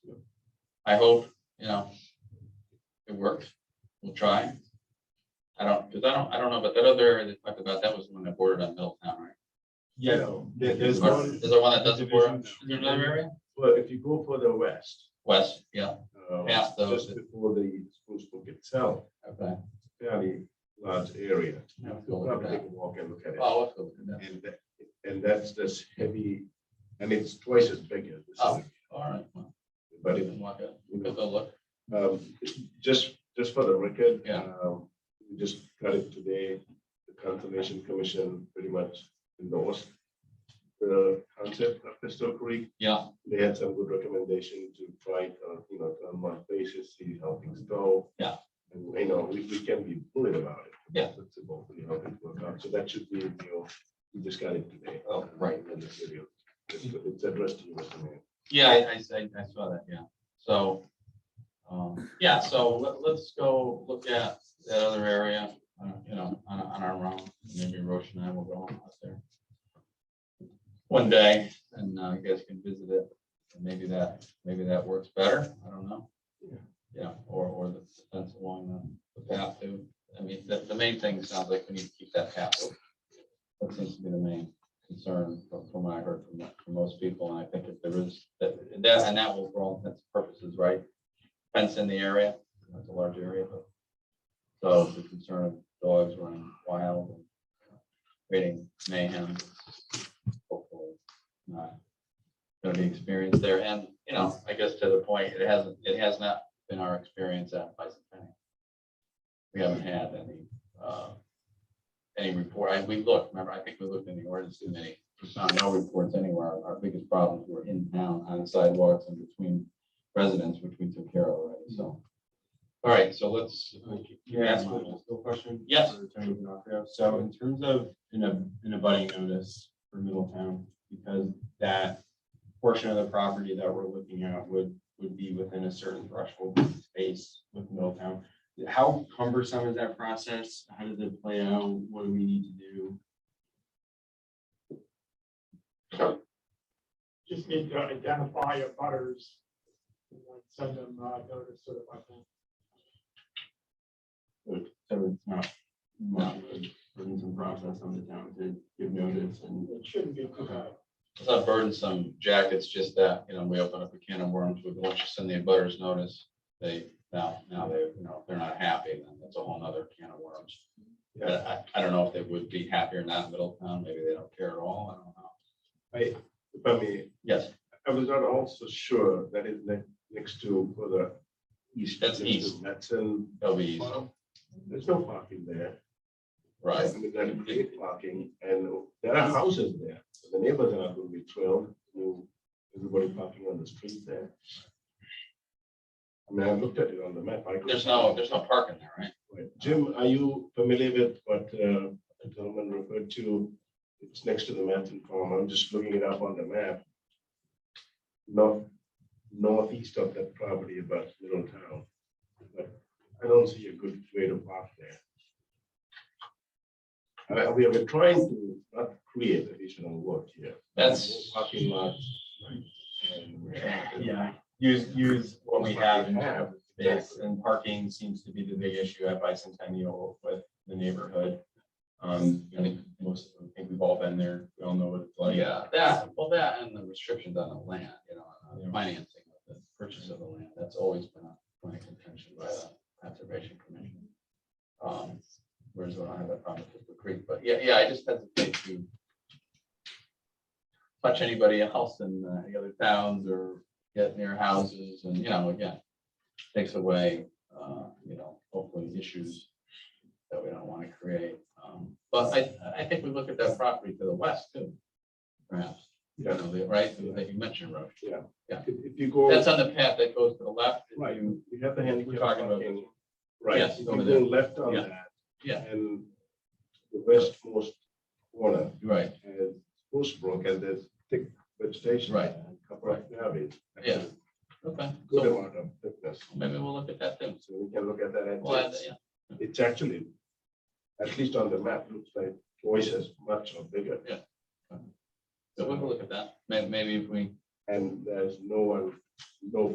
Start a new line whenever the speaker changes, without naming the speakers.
I hope, you know, it works. We'll try. I don't, because I don't, I don't know, but that other area they talked about, that was when they bordered on Middletown, right?
Yeah, there- there's
Or
one,
Is there one that doesn't border? Is
Division.
there another area?
but if you go further west.
West, yeah,
uh,
Past those.
Just before the school book itself,
okay.
fairly large area.
Yeah, let's go look at
Probably take
that.
a walk and look at it.
Oh, let's go look at that.
And that, and that's this heavy, and it's twice as big as this.
Oh. All right. well,
But
we
it,
can walk it.
you know,
We'll go look.
Um, Just, just for the record.
Yeah.
um, We just got it today. The Conservation Commission pretty much endorsed the concept of Crystal Creek.
Yeah,
They had some good recommendation to try, it on, you know, on a month basis, see how things go.
Yeah.
And, you know, we, we can be bullied about it.
Yeah.
It's about, you know, how things work out. So that should be, in your we just got it today.
Oh, right.
In the material. It's it's addressed to you, Mr. Mayor.
yeah, I, I, I- I saw that, yeah. So, um, yeah, so let, let's go look at that other area, uh, you know, on, on our own. Maybe Roche and I will go out there. One day, and uh, you guys can visit it, and maybe that, maybe that works better, I don't know.
Yeah.
Yeah, or, or the fence along the- the path too. I mean, the, the main thing sounds like we need to keep that path. open. That seems to be the main concern from from what I heard from, from most people, and I think if there is, that, that, and that will, for all intents and purposes, right? Fence in the area, that's a large area, but. So the concern of dogs running wild and creating mayhem. Hopefully, not Gonna be experienced there, and, you know, I guess to the point, it hasn't, it has not been our experience at Bicentennial. We haven't had any, uh, any report, I, we looked, remember, I think we looked in the ordinance committee, we found no reports anywhere, our biggest problems were in town, on sidewalks and between residents, which we took care of already, so. All right, so let's.
Can I ask a still question?
Yes.
for Attorney D'Onofrio? So in terms of in a, in a budding notice for Middletown, because that portion of the property that we're looking at would, would be within a certain threshold space with Middletown. How cumbersome is that process? How does it play out? What do we need to do?
just need to identify your butters. and like Send them uh, notice sort of like that.
So it's not much of a burdensome process on the town to give notice and.
It shouldn't be too bad.
It's not burdensome, Jack, it's just that, you know, we open up a can of worms, we want you to send the butters notice, they, now, now they, you know, if they're not happy, then that's a whole nother can of worms. But I, I don't know if they would be happy or not in Middletown, maybe they don't care at all, I don't know.
I, if I may,
Yes,
I was not also sure that is ne- next to further east.
That's
next to
east.
Metzen.
that'll be easy,
Farm. There's no parking there.
right?
I mean, that is great parking and there are houses there. The neighbors are not going to be thrilled. you know, Everybody parking on the street there. I mean, I looked at it on the map. I could-
There's no, there's no parking there, right?
Right. Jim, are you familiar with what uh, the gentleman referred to? It's next to the Manton Farm. I'm just looking it up on the map. North, northeast of that property about Middletown. But I don't see a good way to park there. Uh, We are trying to not create additional work here.
That's,
Parking lots. and we're trying to-
Yeah, use, use what we have in terms of space
Exactly.
and parking seems to be the big issue at Bicentennial with the neighborhood. Um, I think most, I think we've all been there. We all know what it's like.
yeah, that, well, that and the restrictions on the land, you know, on the financing of the purchase of the land, that's always been a point of contention by the conservation commission. Um, whereas I don't have that problem with the creek, but yeah, yeah, I just hesitate to touch anybody else in uh, the other towns or get near houses and, you know, again, takes away, uh, you know, hopefully issues that we don't want to create. Um, But I, I think we look at that property to the west too, perhaps, you
Yeah.
know, the- right, that you mentioned, Roche.
If if you go.
That's on the path that goes to the left. If
Right,
you-
we have the handicap
talking about
parking. Right,
Yes,
if you
over there.
go left on
Yeah.
that.
Yeah.
And the westmost corner
Right,
has Spruce Brook and there's thick vegetation.
Right.
there, a Couple of areas.
Yeah. okay,
Good
so
amount of thickness.
maybe we'll look at that then.
So we can look at that. and
We'll add that,
it's-
yeah.
It's actually, at least on the map, looks like twice as much or bigger.
Yeah. So we'll look at that, May- maybe if we
And there's no one, no